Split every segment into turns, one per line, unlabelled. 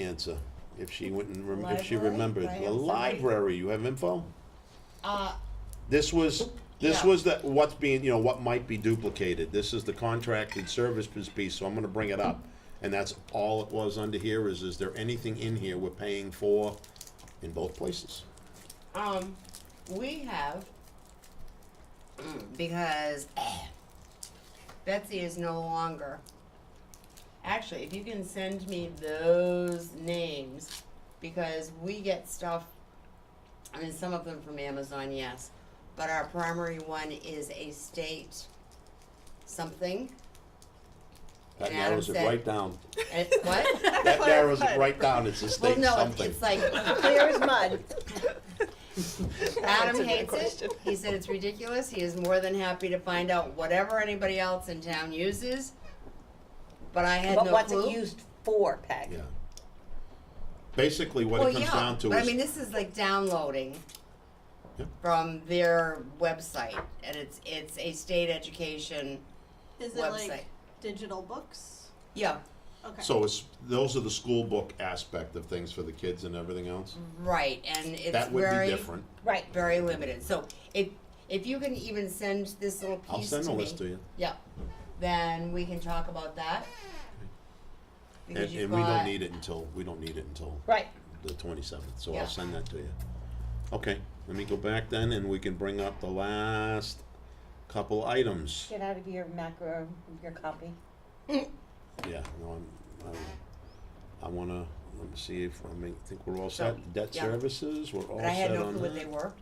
answer if she wouldn't rem- if she
Library?
remembered.
I have
The
somebody-
library, you have info?
Uh,
This was, this
Yeah.
was the, what's being, you know, what might be duplicated. This is the contracted services piece, so I'm gonna bring it up. And that's all it was under here is, is there anything in here we're paying for in both places?
um, we have, because Betsy is no longer. Actually, if you can send me those names, because we get stuff, I mean, some of them from Amazon, yes, but our primary one is a state something.
That
And Adam
narrows it
said-
right down.
And- Eh, what?
That narrows it right down, it's a
well,
state
no, it's,
something.
it's like
Clear as mud.
Adam
That's a good
hates
question.
it. He said it's ridiculous. He is more than happy to find out whatever anybody else in town uses. But I had
But
no
what's
clue.
it used for, Peg?
Yeah. Basically, what
well,
it comes
yeah,
down to
but I
is
mean, this is like downloading
Yeah.
from their website, and it's it's a state education
Is it
website.
like digital books?
yeah,
Okay.
So it's, those are the school book aspect of things for the kids and everything else?
right, and it's
That would
very
be different.
Right.
very limited. So if if you can even send this little piece
I'll send
to
a
me,
list to you.
Yeah, then we can talk about that.
And,
Because
and we
you've
don't
got-
need it until, we don't need it until
Right.
the twenty-seventh, so
Yeah.
I'll send that to you. Okay, let me go back then and we can bring up the last couple items.
Get out of your macro, your copy.
Yeah, no, I'm, I'm, I wanna, let me see if, I mean, think we're all set. Debt
yeah.
services, we're all
But I had
set
no
on
clue what they
that.
were.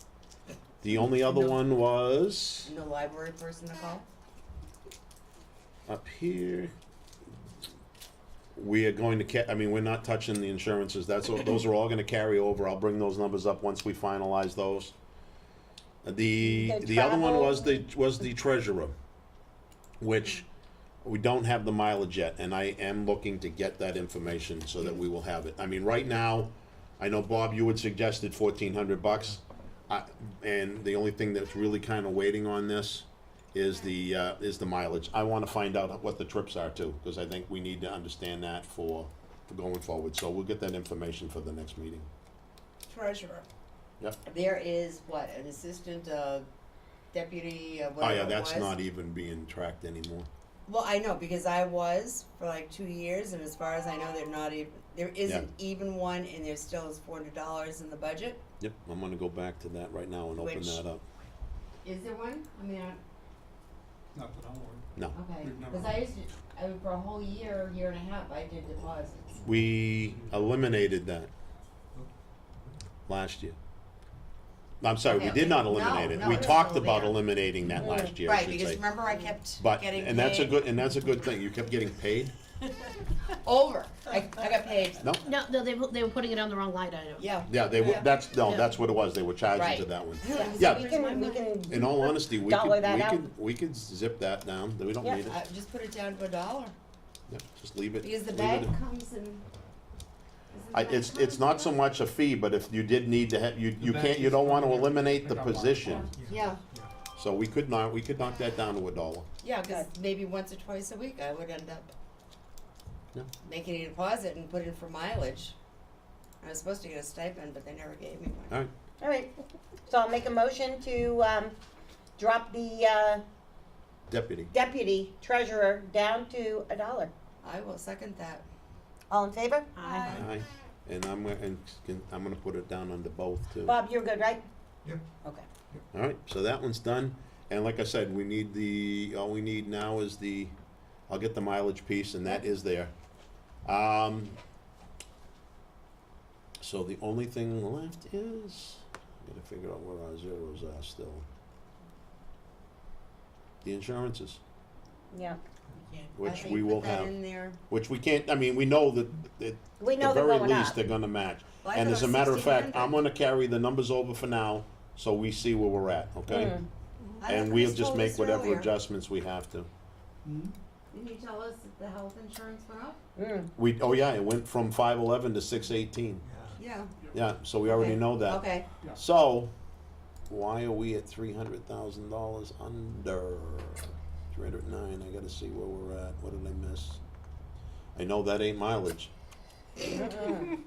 The only other
No.
one was
No library person to call.
up here. We are going to ca- I mean, we're not touching the insurances, that's, all- those are all gonna carry over, I'll bring those numbers up once we finalize those. The,
The
the other one was the,
travel.
was the treasurer, which we don't have the mileage yet, and I am looking to get that information so that we will have it. I mean, right now, I know Bob, you had suggested fourteen hundred bucks, I, and the only thing that's really kinda waiting on this is the, uh, is the mileage. I wanna find out what the trips are too, cause I think we need to understand that for, for going forward, so we'll get that information for the next meeting.
Treasurer.
Yep.
There is what, an assistant, uh, deputy, uh,
Oh
whatever
yeah,
it
that's
was.
not e- even being tracked anymore.
Well, I know because I was for like two years, and as far as I know, they're not even. There isn't even one, and there still is four hundred dollars in the budget.
Yep, I'm gonna go back to that right now and open
Which-
that up.
Is there one? I mean, I,
Not that I'm worried.
No.
okay,
We've never-
because I used to. I mean, for a whole year, year and a half, I did deposits.
We eliminated that last year. I'm sorry, we
Okay,
did not
no,
eliminate it.
no,
We
it's
talked
still
about
there.
eliminating that last year, I
right,
should
because
say.
remember I kept
But,
getting
and that's a
paid
good, and that's a good thing. You kept getting paid?
over. I, I got paid.
No?
No, no, they, were- they were putting it on the wrong line item.
Yeah.
Yeah, they were,
Yeah.
that's, no, that's what it was. They were charging to
Right.
that one.
So We
Yeah,
can, we can,
in all honesty, we
Dollar
could,
that
we
out.
could, we could zip that down. We don't
Yeah,
need it.
I just put it down to a dollar
Yep, Just leave it.
because the
leave
bag
it.
comes and.
I, it's, it's not so much a fee, but if you did need to have, you, you can't, you don't wanna eliminate the position.
Yeah,
So we could not, we could knock that down to a dollar.
yeah, because maybe once or twice a week I would end up
Yeah.
making a deposit and put in for mileage. I was supposed to get a stipend, but they never gave me one.
All right,
all right. So I'll make a motion to, um, drop the, uh,
deputy.
deputy treasurer down to a dollar.
I will second that.
All in favor?
Aye.
Aye, and I'm, gonna- and can- I'm gonna put it down under both too.
Bob, you're good, right?
Yep.
Okay.
Alright, so that one's done, and like I said, we need the, all we need now is the, I'll get the mileage piece, and that is there. Um, so the only thing left is, I gotta figure out where our zeros are still. The insurances,
Yeah.
I
which
think
we will
put that
have,
in there.
which we can't, I mean, we know that, that
We know
the
they're
very
going
least,
up.
they're gonna match.
Well, I
And
thought
as
it
a
was
matter of fact,
1600.
I'm gonna carry the numbers over for now, so we see where we're at, okay?
Mm.
I thought
And
we
we'll
was
just
told
make
this
whatever
earlier.
adjustments we have to.
Mhm.
Didn't you tell us that the health insurance went up?
Mm.
We, oh yeah, it went from five eleven to six eighteen,
Yeah.
Yeah.
yeah, so we already
Okay.
know that.
Okay.
So, why are we at three hundred thousand dollars under? Three hundred nine, I gotta see where we're at, what did I miss? I know that ain't mileage,
mm, Mm-mm.